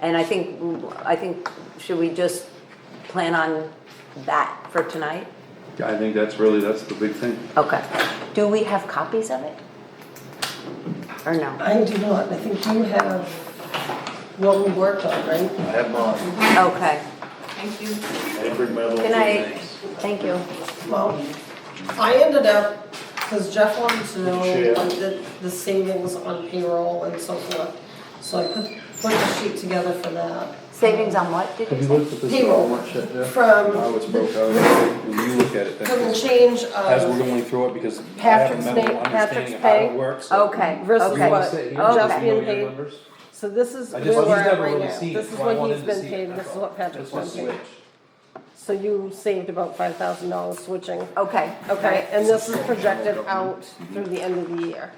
And I think, I think, should we just plan on that for tonight? I think that's really, that's the big thing. Okay. Do we have copies of it? Or no? I do not, I think you have what we worked on, right? I have mine. Okay. Thank you. I didn't bring my little Uh, Good thing. night. Thank you. Well, I ended up, because Jeff wanted to know Share. like, the, the savings on payroll and so forth. So I put, put the sheet together for that. Savings on what, did you say? at Payroll How from it's broke out, when you look at it, the that's, change as we're of, going through it, because I have a Patrick's mental name- understanding of Patrick's how pay. it works. so- Okay, Versus You wanna what? Oh, okay. sit here Okay. and just Okay. know your Okay. numbers? so this is I where just, he's we're at never right really now. seen it, This is so I what wanted he's to been see it, paid, that's this is all. what Patrick's Just wanna been paid. switch. So you saved about five thousand dollars switching. Okay, Okay, okay. and this is projected out through the end of the year.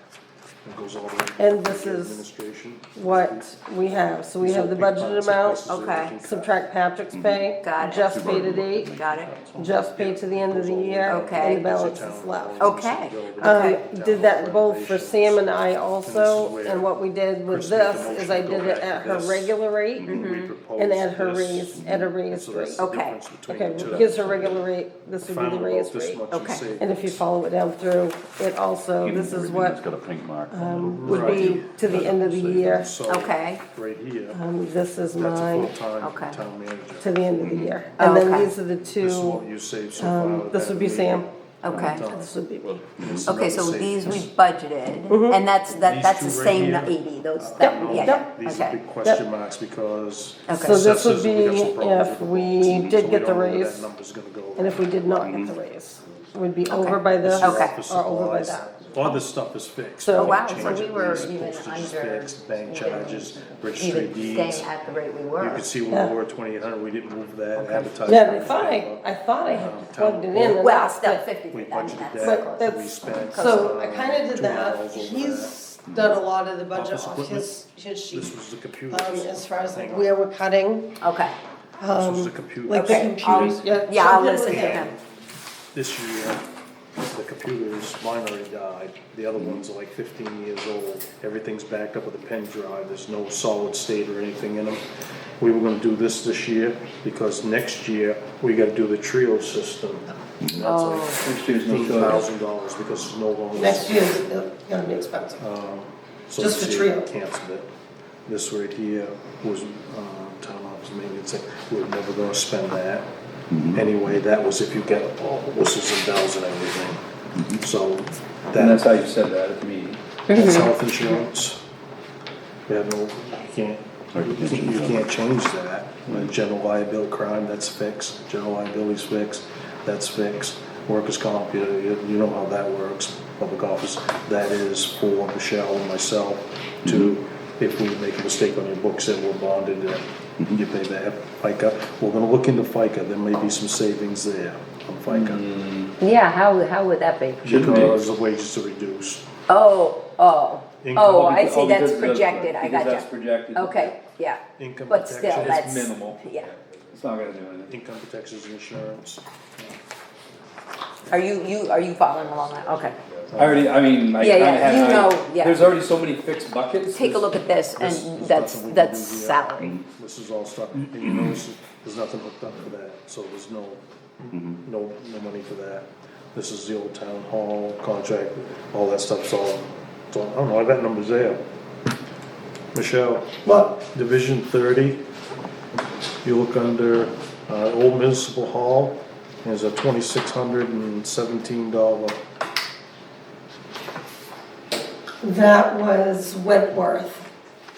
It goes all the way. And this is- Administration. What we have, so we have the budgeted amount, Okay. subtract Patrick's pay. Got it. Jeff's paid at eight, Got it? Jeff's paid to the end of the year. Okay. And the balance is left. Okay. Um, Okay. did that both for Sam and I also, and what we did with this Mm-hmm. is I did it at her regular rate Mm-hmm. and at her raise, at a raised rate. Okay. Okay, gives her regular rate, this would be the raised rate. Okay. And if you follow it down through, it also, this is what got a pink mark. um, would be to the end of the year. Okay. Right here, Um, This is that's a mine full-time Okay. town manager. to the end of the year. And then Oh, Okay. these are the This is what two, you saved so far. um, with this that would be Sam, meeting. Okay. Done. this would be me. It's Okay, another so these we savings. budgeted, and that's, that, These that's the two right same here. eighty, those, that, I don't yeah, know, yeah, These are okay. big question marks because. Okay. So this would assessors, we got some be problems if with the we books, did get so the don't know where raise That number's gonna go. And if we did not get the raise, we'd be over by this Okay. or over by Supplies. that. All this stuff is fixed. So- Oh, wow, Change so we of were lease, even postage is under- fixed, Bank charges, registry Even deeds. staying at the rate we You were. can see when we were twenty-eight hundred, we didn't move that advertising. Yeah, and I thought I, I thought I had plugged it in and Well, that's step it. fifty, We then budgeted that's- But that, we that's- spent. so I uh, kinda did two that. miles over He's done a lot of the budget Office off his, his that. This sheet. was the Um, computer. Oh, as far as like where we're cutting, Okay, This was the computer. like the computers, yeah. yeah, I'll something with listen to that. him, This year, the computers, mine already died, the other ones are like fifteen years old, everything's backed up with a pen drive, there's no solid state or anything in them. We were gonna do this this year, because next year, we gotta do the Trio system. Oh. And That's like fifteen thousand dollars, because it's no longer. Next year's gonna be expensive. So Just for this Trio. year, Canceled it. This right here was, uh, town office maintenance, like, we were never gonna spend that. Mm-hmm. Anyway, that was if you got all the whistles and bells and everything. So Mm-hmm. And that's that, how you said that at the meeting. that's health insurance. We have no, you can't, you can't change that. Like, General liability crime, that's fixed. General liability's fixed, that's fixed. Workers' comp, you, you- you know how that works, public office. That is for Michelle and myself to, if we make a mistake on your books that we're bonded, uh, you pay that FICA. We're gonna look into FICA, there may be some savings there on FICA. yeah, how, how would that be? Shouldn't be. Because the wages are reduced. Oh, oh, oh, I because- see, oh, that's because that's- projected, I because got that's projected. Okay, yeah, Income but still, protection. that's. It's minimal. Yeah, It's not gonna do anything. Income protections and insurance. are you, you, are you following along that, okay. I already, I mean, I Yeah, kinda yeah, had. you I- know, yeah. There's already so many fixed buckets. Take a look at this, This- and there's that's, nothing we can that's do here. salary, This is all stuff, and you know, this is- there's nothing hooked up for that, so there's no, Mm-hmm. no, no money for that. This is the old town hall contract, all that stuff's all, it's all- I don't know, I got numbers there. Michelle, Well, Division thirty, you look under, uh, Old Municipal Hall, there's a twenty-six hundred and seventeen dollar. that was Wentworth,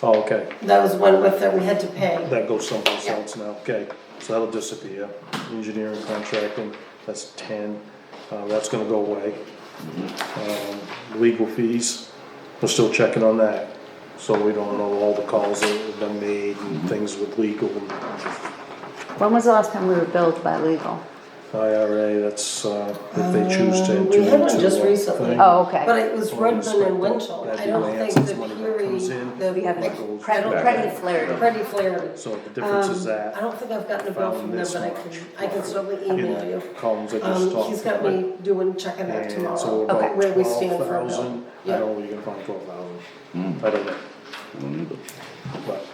Oh, okay, that was Wentworth that we had to pay. that goes someplace else now, okay, so that'll disappear. Engineering contracting, that's ten, uh, that's gonna go away. Um, legal fees, we're still checking on that, so we don't know all the calls that have been made and things with legal and When was the last time we were billed by legal? IRA, that's, uh, if they choose to. Um, we enter had one into just a recently. thing. Oh, okay. But it was Or Redmond inspector, and Winchell, that'd I be don't my think answer, the money that Peary, comes in. the. We have like, a goes pretty, back. pretty flare. Pretty flared. So the difference is Um, that. I don't think I've gotten a bill found from them, this but I much can, I can certainly in email the you. Columns I just Um, talked. he's got about. me doing, checking that And so tomorrow, about where we stand for a bill. 12,000, I Yeah. don't know where you're gonna find twelve thousand, I don't know, I don't either. but